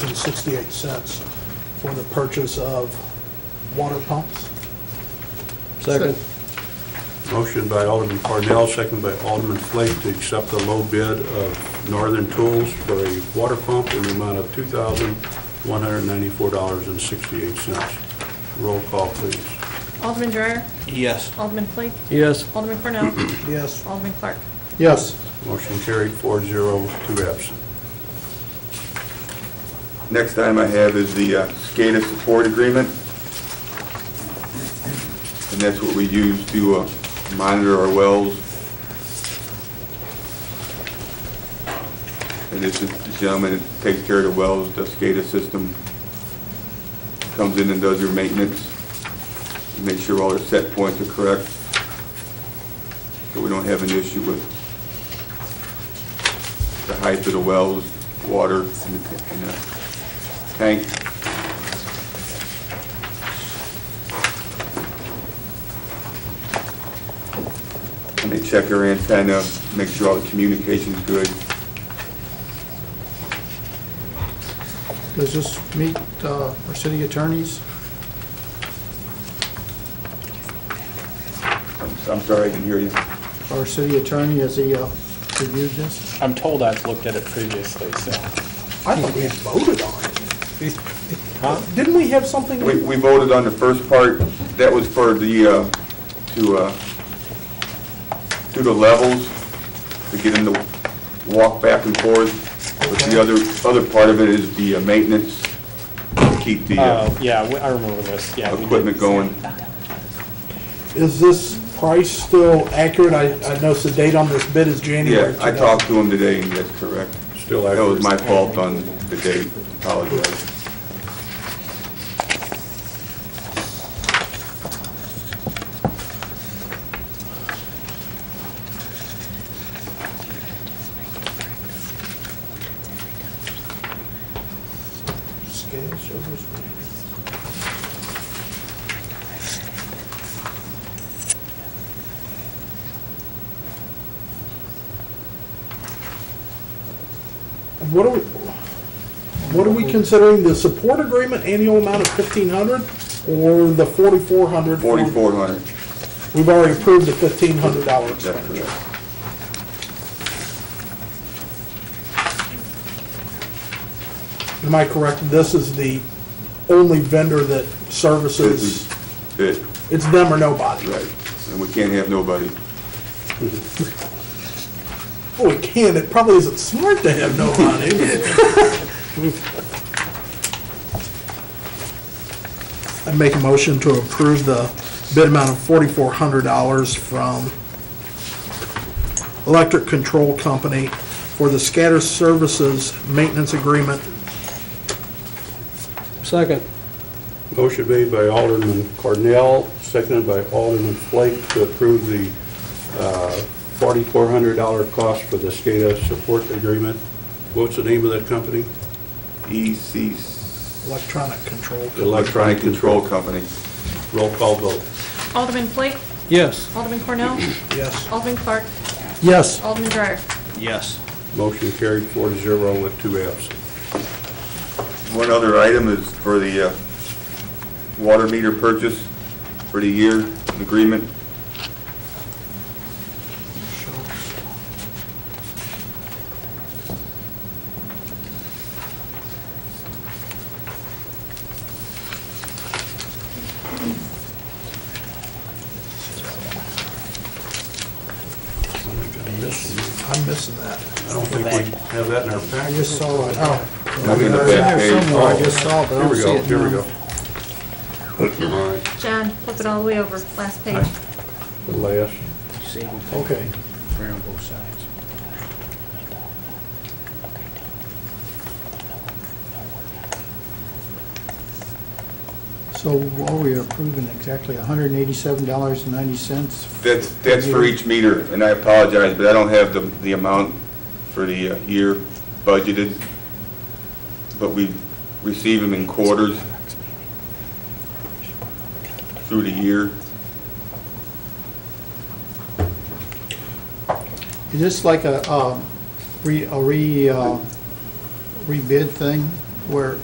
$1,068 for the purchase of water pumps. Second. Motion by Alderman Cornell, second by Alderman Flake to accept the low bid of Northern Tools for a water pump in the amount of $2,194.68. Roll call, please. Alderman Dreyer? Yes. Alderman Flake? Yes. Alderman Cornell? Yes. Alderman Clark? Yes. Motion carried, four zero, two absent. Next item I have is the uh, SCADA support agreement. And that's what we use to uh, monitor our wells. And this is the gentleman that takes care of the wells, the SCADA system, comes in and does your maintenance, make sure all their set points are correct, so we don't have an issue with the height of the wells, water, and the ta- and the tank. And they check their antenna, make sure all the communication's good. Does this meet uh, our city attorneys? I'm I'm sorry, I can hear you. Our city attorney, has he uh, reviewed this? I'm told I've looked at it previously, so. I thought we had voted on it. Didn't we have something? We we voted on the first part, that was for the, uh, to, uh, to the levels, to get them to walk back and forth. But Okay. the other, other part of it is the uh, maintenance, to keep the uh, Oh, yeah, we- I remember this, yeah. we did. equipment going. Is this price still accurate? I I noticed the date on this bid is January Yeah, I 2000. talked to him today, and that's correct. Still That was accurate. my fault on the date, apologize. SCADA service. And What are we, what are we considering, the support agreement annual amount of fifteen hundred or the forty-four hundred? Forty-four hundred, We've already approved the fifteen hundred dollar that's expenditure. correct. Am I correct? This is the only vendor that This services, is it, it's them or nobody. right, and we can't have nobody. Well, we can, it probably isn't smart to have no money. I make a motion to approve the bid amount of forty-four hundred dollars from Electric Control Company for the scatter services maintenance agreement. Second. Motion made by Alderman Cornell, seconded by Alderman Flake to approve the uh, $4,400 cost for the SCADA support agreement. What's the name of that company? EC, Electronic Control. Electronic Control Company. Roll call vote. Alderman Flake? Yes. Alderman Cornell? Yes. Alderman Clark? Yes. Alderman Dreyer? Yes. Motion carried four to zero with two absent. One other item is for the uh, water meter purchase for the year, an agreement. I'm missing that. I don't think we have that in our I package. just saw it. Oh, It's in the it's in back there page. somewhere. I just saw it, but I Here don't we see go, it here we now. go. All right, John, flip it all the way over, last page. the last. Okay. Fair on both sides. So are we approving exactly $187.90? That's, that's for each meter, and I apologize, but I don't have the, the amount for the uh, year budgeted. But we receive them in quarters through the year. Is this like a um, re, a re, uh, rebid thing where